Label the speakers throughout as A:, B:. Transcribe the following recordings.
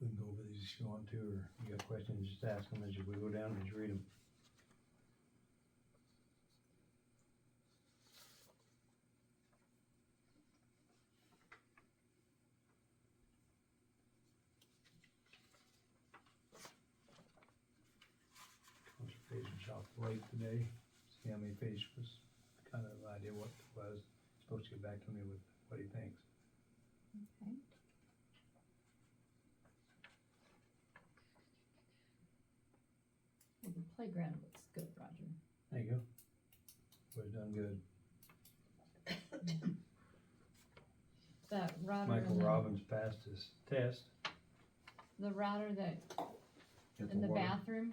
A: We can go over these if you want to, or if you got questions, just ask them as you- we go down, just read them. First page was off late today, see how many pages was, kind of idea what it was, supposed to get back to me with what he thinks.
B: Okay. Well, the playground looks good, Roger.
A: There you go. We've done good.
B: The router.
A: Michael
B: and the-
A: Robbins passed his test.
B: The router that, in the bathroom,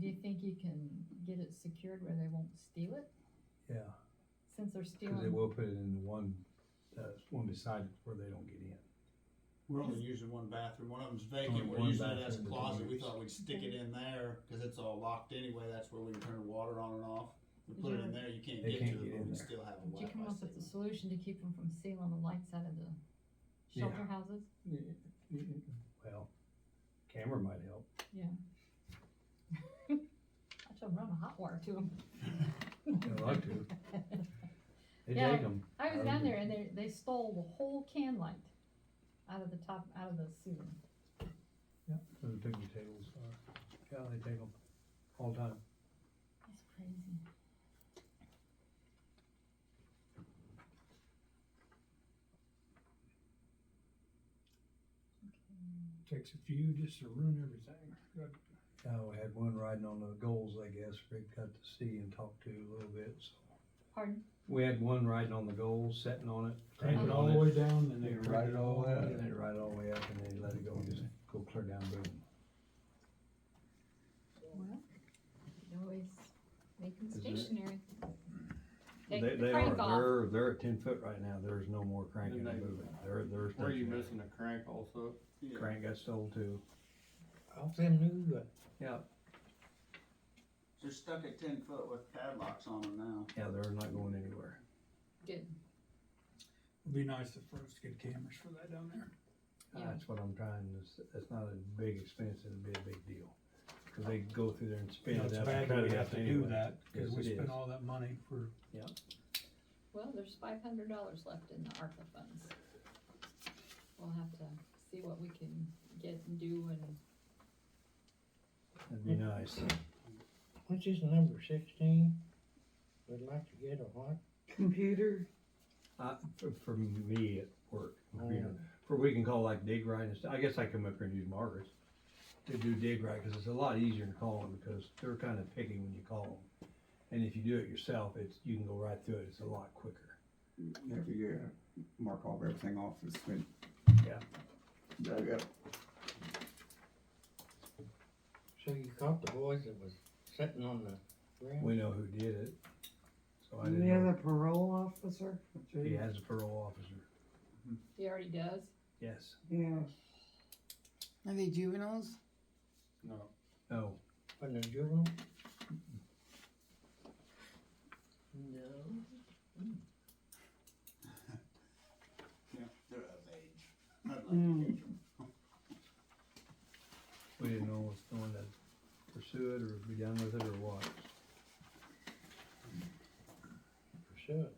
B: do you think you can get it secured where they won't steal it?
A: Yeah,
B: Since they're
A: because they
B: stealing,
A: will put it in the one, uh, one beside it where they don't get in.
C: We're only using one bathroom, one of them's
A: Only
C: vacant, we're
A: one
C: using it as a
A: bathroom that we
C: closet, we
A: use.
C: thought we'd stick it in there, cause it's all locked anyway, that's where we can turn the water on and off. We
B: Did
C: put
B: you
C: it
B: ever-
C: in there, you can't
A: They
C: get
A: can't
C: to
A: get
C: it,
A: in
C: but we
A: there.
C: still have a
B: did you
C: Wi-Fi
B: come up with a
C: signal.
B: solution to keep them from stealing the lights out of the
A: Yeah.
B: shelter houses?
A: Well, camera might help.
B: Yeah. I should run a hot wire to them.
A: I'd like to. They
B: Yeah.
A: take them.
B: I was
A: Um,
B: down there and they, they stole the whole can light out of the top, out of the sewer.
A: The picnic tables are, yeah, they take them all the time.
B: That's crazy. Okay.
D: Takes a few just to ruin everything. Good.
A: Yeah, we had one riding on the goals, I guess, Rick got to see and talk to a little bit, so.
B: Pardon?
A: We had one riding on the goals, sitting on it.
D: Take
A: standing
D: it
A: on
D: all the way down and
A: They
D: they.
A: ride it all the way up, and they
D: Yeah.
A: ride it all the way up, and they let it go, and just go clear down Boone.
B: Well, you can always make them
E: Is there-
B: stationary.
E: They,
B: Take the
E: they are,
B: crank off.
E: they're, they're at ten foot right now, there's no more cranking
F: Then
E: and
F: they-
E: moving, they're, they're.
F: Were you
E: stationary.
F: missing a crank also?
C: Yeah.
E: Crank got sold too.
D: All them new, but
E: Yeah.
C: They're stuck at ten foot with padlocks on them now.
E: Yeah, they're not going anywhere.
B: Good.
D: it'd be nice if first get cameras for that down there.
E: Uh,
B: Yeah.
E: That's what I'm trying, it's, it's not a big expense, it'd be a big deal. Cause they go through there and spin
D: It's
E: it up.
D: bad
E: and cut
D: that
E: it up
D: we have to do
E: anyway.
D: that, cause
E: Yes,
D: we
E: it is.
D: spent all that money for,
B: Well, there's five hundred dollars left in the ARPA funds. We'll have to see what we can get and do and
E: That'd be nice.
G: What's his number, sixteen? Would like to get a what?
H: computer,
E: Uh, for, for me at work, you know, for we can call like dig right and stuff, I guess I come up here and use Margaret's to do dig right, cause it's a lot easier than calling, because they're kinda picky when you call them. And if you do it yourself, it's, you can go right through it, it's a lot quicker.
I: After you uh, mark all of everything off, it's been
E: Yeah.
I: dug up.
G: So you caught the boys that was sitting on the ground?
E: We know who did it. So I
H: and
E: didn't
H: the
E: know,
H: other parole officer.
E: he has a parole officer,
B: he already does.
E: yes,
H: Yeah.
G: Are they juveniles?
F: No.
E: no,
G: From the juvenile?
B: No.
C: Yeah, they're of age. I'd like to
B: Hmm.
H: Mm.
C: catch 'em.
E: we didn't know if someone to pursue it or be done with it or what.
G: Pursue it.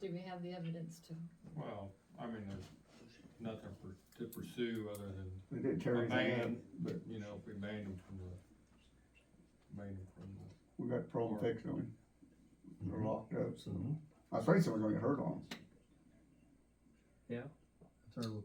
B: Do we have the evidence to
F: Well, I mean, there's nothing for, to pursue other than
I: We did
F: a
I: Terry's
F: ban,
I: land.
F: but you know, if we banned them from the, banned them from the.
I: We got pro and fix on him. They're locked up, so.
H: Mm-hmm.
E: Mhm.
I: I was afraid someone was gonna get hurt on him.
E: That's our